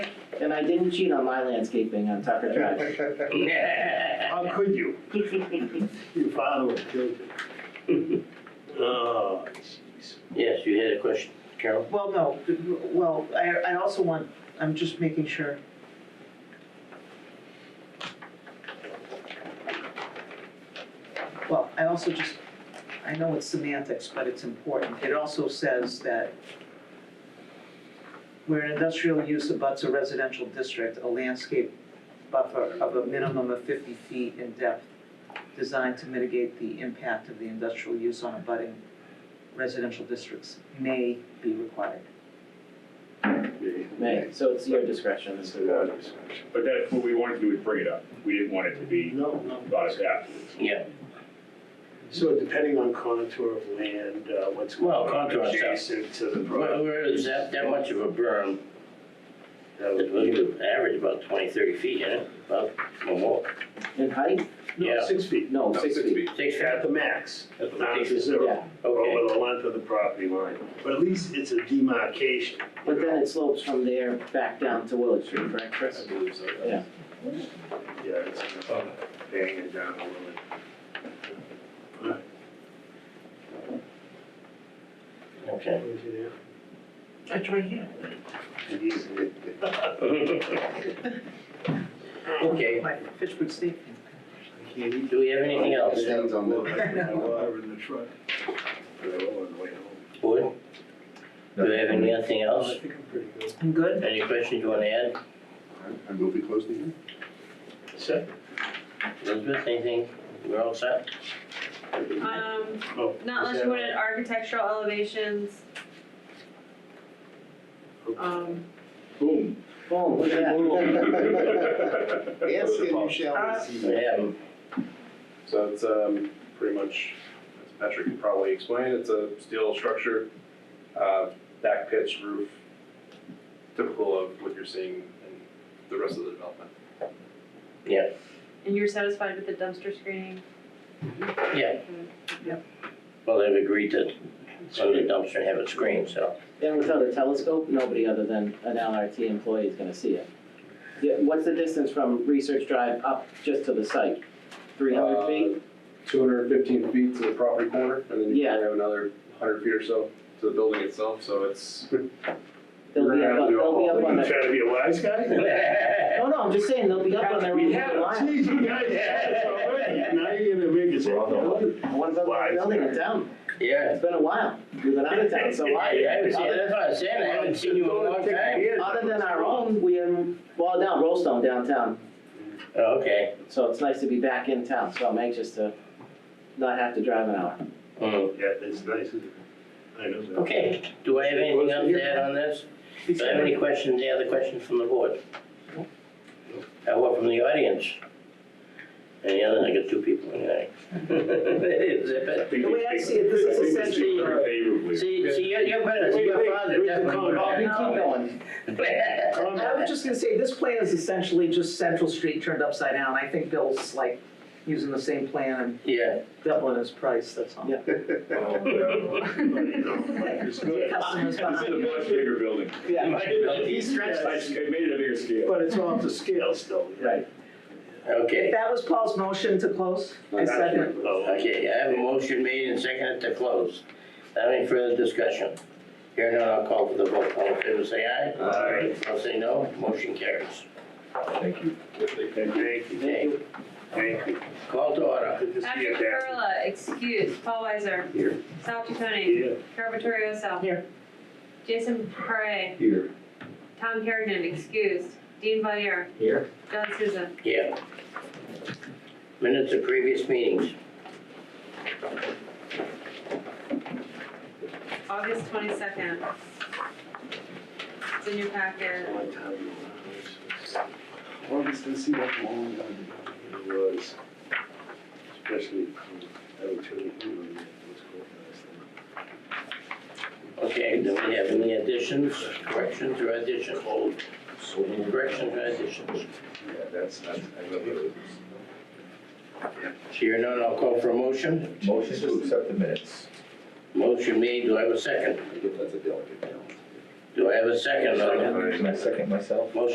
And I didn't cheat on my landscaping on Tucker Drive. How could you? Your father would kill you. Oh, jeez. Yes, you had a question, Carol? Well, no, well, I, I also want, I'm just making sure. Well, I also just, I know it's semantics, but it's important. It also says that where an industrial use abuts a residential district, a landscape buffer of a minimum of fifty feet in depth designed to mitigate the impact of the industrial use on abutting residential districts may be required. May, so it's your discretion as to Without what. discussion. But that's what we wanted to do, is bring it up. We didn't want it to be No, no. thought of afterwards. Yeah, So depending on contour of land, uh, what's going Well, on contour, so- adjacent to the where property. where is that, that much of a berm, that it would would be- average about twenty, thirty feet, isn't it? About, or more, In height? No, Yeah. six feet. No, six feet. six feet, At the max, At the not to max. zero, Yeah, okay. over the length of the property line. But at least it's a demarcation. but then it slopes from there back down to Willow Street, correct, Chris? Yeah. Yeah, it's kind Oh. of banging it down a little bit. Okay. That's right here. I Okay, My Fitchburg State. can't eat do we have anything else? Stands on Well, I the, put my water in the truck. But I will on the way home. Board, do we have anything Oh, I else? think I'm pretty good. I'm good. Any questions you wanna add? I move we close the hearing. Set. Elizabeth, anything? We're all set? Um, Oh, not is that- unless you wanted architectural elevations. Um, Boom. Boom, look at that. Ask and you Uh, shall We receive. have 'em. So it's um, pretty much, as Patrick could probably explain, it's a steel structure, uh, back pitch roof, typical of what you're seeing in the rest of the development. and you're satisfied with the dumpster screening? yeah. Well, they've agreed to, so the dumpster and have it screened, so. And without a telescope, nobody other than an LRT employee is gonna see it. Yeah, what's the distance from Research Drive up just to the site? Three hundred feet? Two hundred fifteen feet to the property corner, and then you Yeah. probably have another hundred feet or so to the building itself, so it's, They'll be up, on- they'll be up on You the, trying to be a wise guy? no, no, I'm just saying, they'll be up on their We roof had for a a while. geez, you guys had us already. Now you're gonna make us. What about Wise the building in guy. town? Yeah. It's been a while, we've been out of town, so I, I why? haven't seen, that's what I said, I haven't seen you in a long time. Other than our own, we, um, well, down Rollstone downtown, Oh, Okay. so it's nice to be back in town, so I'm anxious to not have to drive an hour. Hmm. Yeah, it's nice, isn't it? I know that. Okay, do I have anything else to add on this? Do I have any questions, any other questions from the board? Uh, Or from the audience? Any other, I got two people in there. Zip it. The way I see it, this is essentially- Favorably. See, see, you're, you're better, see, Wait, your wait, father read the definitely. comment. We keep going. I was just gonna say, this plan is essentially just Central Street turned upside down. I think Bill's like using the same plan and Yeah, doubling his price, that's all. Yeah. Your customers This is a behind you. much bigger building. Yeah, He stretched I it, I made it a bigger scale. but it's off the scale still. right. okay, That was Paul's motion to close. I second. Oh, okay, I have a motion made and seconded to close. Any further discussion? Here none, I'll call for the vote, all in favor, say aye. All right. I'll say no, motion carries. Thank you. Okay, Thank you. call to order. Good to see Patrick you, Catherine. Perla, excuse, Paul Weiser. Here. Sal Chaconi. Yeah. Carol Vittorioso. Here. Jason Parre. Here. Tom Kerrigan, excused. Dean Valier. Here. John Souza. Yeah. Minutes of previous meetings, August twenty-second. It's in your packet. One time in the lives. August, let's see that long one. It was, especially, um, I would tell you, who was called last time. okay, do we have any additions, corrections, or additions? Any corrections or additions? Yeah, that's, that's, I love it. Here none, I'll call for a motion. Motion to accept the minutes. Motion made, do I have a second? I think that's a delicate balance. Do I have a second on it? Can I second myself? Motion